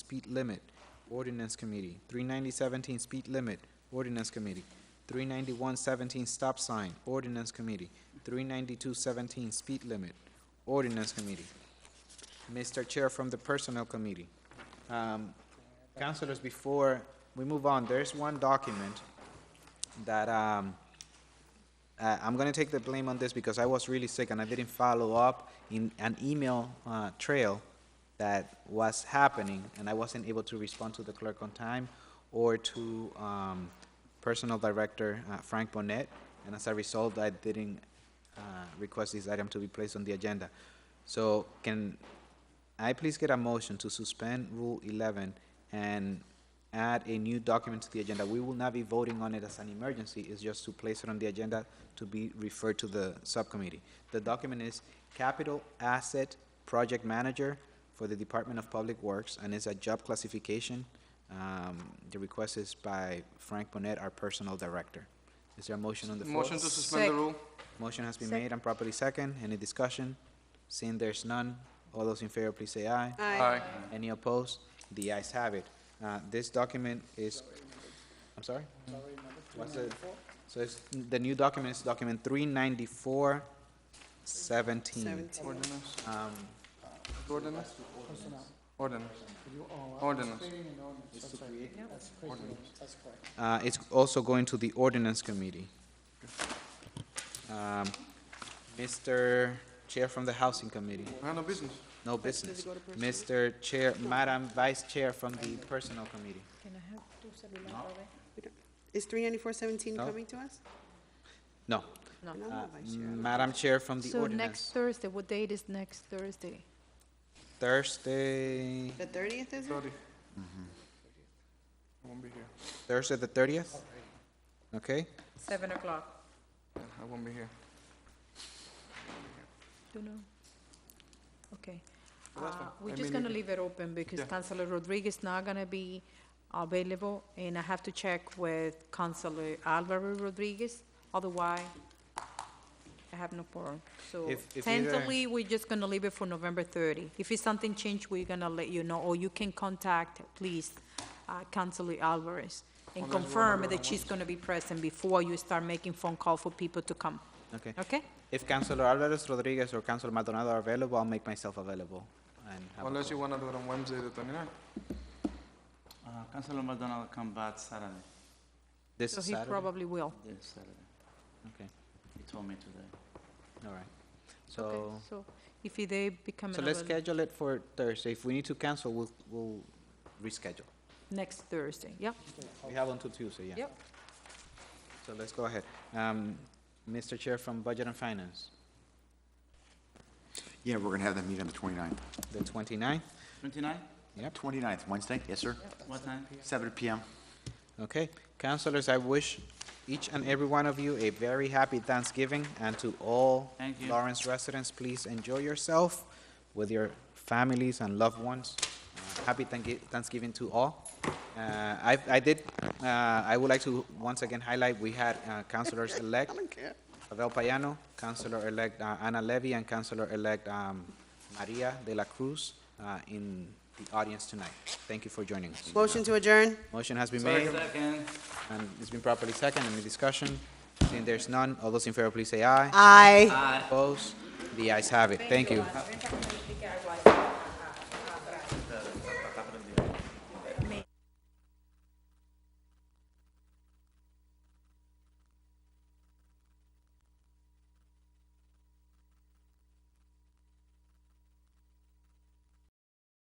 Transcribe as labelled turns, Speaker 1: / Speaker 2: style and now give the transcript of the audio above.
Speaker 1: speed limit, ordinance committee. Three ninety seventeen, speed limit, ordinance committee. Three ninety-one seventeen, stop sign, ordinance committee. Three ninety-two seventeen, speed limit, ordinance committee. Mr. Chair from the Personnel Committee. Um, Councilors, before we move on, there's one document that, um, uh, I'm gonna take the blame on this because I was really sick and I didn't follow up in an email, uh, trail that was happening, and I wasn't able to respond to the clerk on time or to, um, Personnel Director uh, Frank Bonnet, and as a result, I didn't, uh, request this item to be placed on the agenda. So can I please get a motion to suspend Rule 11 and add a new document to the agenda? We will not be voting on it as an emergency, it's just to place it on the agenda to be referred to the subcommittee. The document is Capital Asset Project Manager for the Department of Public Works, and it's a job classification. Um, The request is by Frank Bonet, our Personal Director. Is there a motion on the floor?
Speaker 2: Motion to suspend the
Speaker 3: Sec-
Speaker 2: rule?
Speaker 1: Motion has been made and properly second. Any discussion? Seeing there's none, all those in favor, please say aye.
Speaker 2: Aye.
Speaker 1: Any opposed? The ayes have it. Uh, This document is, I'm sorry? What's the, so it's, the new document is document three ninety-four seventeen.
Speaker 3: Seventeen.
Speaker 2: Ordinance,
Speaker 1: Um,
Speaker 2: ordinance? Ordinance. Ordinance.
Speaker 1: uh, it's also going to the ordinance committee. Um, Mr. Chair from the Housing Committee.
Speaker 2: We have no business.
Speaker 1: No business. Mr. Chair, Madam Vice Chair from the Personnel Committee.
Speaker 3: Is three ninety-four seventeen
Speaker 1: No.
Speaker 3: coming to us?
Speaker 1: No.
Speaker 3: No.
Speaker 1: Uh,
Speaker 3: Vice Chair.
Speaker 1: Madam Chair from the
Speaker 4: So next
Speaker 1: Ordinance.
Speaker 4: Thursday, what date is next Thursday?
Speaker 1: Thursday,
Speaker 3: The thirtieth is it?
Speaker 2: Sorry.
Speaker 1: Mm-hmm.
Speaker 2: I won't be here.
Speaker 1: Thursday the thirtieth? Okay,
Speaker 5: Seven o'clock.
Speaker 2: Yeah, I won't be here.
Speaker 4: Don't know. Okay.
Speaker 2: Well, that's
Speaker 4: Uh,
Speaker 2: fine. I
Speaker 4: We're
Speaker 2: mean,
Speaker 4: just gonna
Speaker 2: you-
Speaker 4: leave it open because
Speaker 2: Yeah.
Speaker 4: Councilor Rodriguez not gonna be available, and I have to check with Councilor Alvaro Rodriguez, otherwise I have no quorum. So
Speaker 1: If- if either-
Speaker 4: tentatively, we're just gonna leave it for November thirty. If it's something changed, we're gonna let you know, or you can contact, please, uh, Councilor Alvarez and
Speaker 2: Unless we're
Speaker 4: confirm
Speaker 2: not
Speaker 4: that she's gonna be present before you start making phone call for people to come,
Speaker 1: okay.
Speaker 4: okay?
Speaker 1: If Councilor Alvarez Rodriguez or Councilor Maldonado are available, I'll make myself available and have a
Speaker 2: Unless you
Speaker 1: call.
Speaker 2: wanna do it on Wednesday, the twenty-ninth.
Speaker 6: Uh, Councilor Maldonado come back Saturday,
Speaker 1: This
Speaker 4: So
Speaker 1: is
Speaker 4: he
Speaker 1: Saturday?
Speaker 4: probably will.
Speaker 6: this Saturday.
Speaker 1: Okay,
Speaker 6: He told me today.
Speaker 1: all right.
Speaker 4: Okay,
Speaker 1: So,
Speaker 4: so if he- they become
Speaker 1: so let's
Speaker 4: available
Speaker 1: schedule it for Thursday. If we need to cancel, we'll, we'll reschedule.
Speaker 4: next Thursday, yep,
Speaker 1: We have until Tuesday, yeah.
Speaker 4: yep.
Speaker 1: So let's go ahead. Um, Mr. Chair from Budget and Finance,
Speaker 7: Yeah, we're gonna have that meeting on the 29th.
Speaker 1: the 29th.
Speaker 6: Twenty-nine,
Speaker 7: 29th, Wednesday, yes, sir?
Speaker 6: what time?
Speaker 7: Seven PM.
Speaker 1: Okay, councilors, I wish each and every one of you a very happy Thanksgiving, and to all
Speaker 6: Thank you.
Speaker 1: Lawrence residents, please enjoy yourself with your families and loved ones. Uh, Happy Thank- Thanksgiving to all. Uh, I, I did, uh, I would like to once again highlight, we had uh, councilors-elect Pavel Payano, Councilor-elect uh, Ana Levy, and Councilor-elect um, Maria de la Cruz uh, in the audience tonight. Thank you for joining us.
Speaker 3: Motion to adjourn?
Speaker 1: Motion has been made.
Speaker 6: Second.
Speaker 1: And it's been properly second, any discussion? Seeing there's none, all those in favor, please say aye.
Speaker 3: Aye.
Speaker 6: Aye.
Speaker 1: Opposed? The ayes have it, thank you.
Speaker 5: Ven para que me explique algo ahí.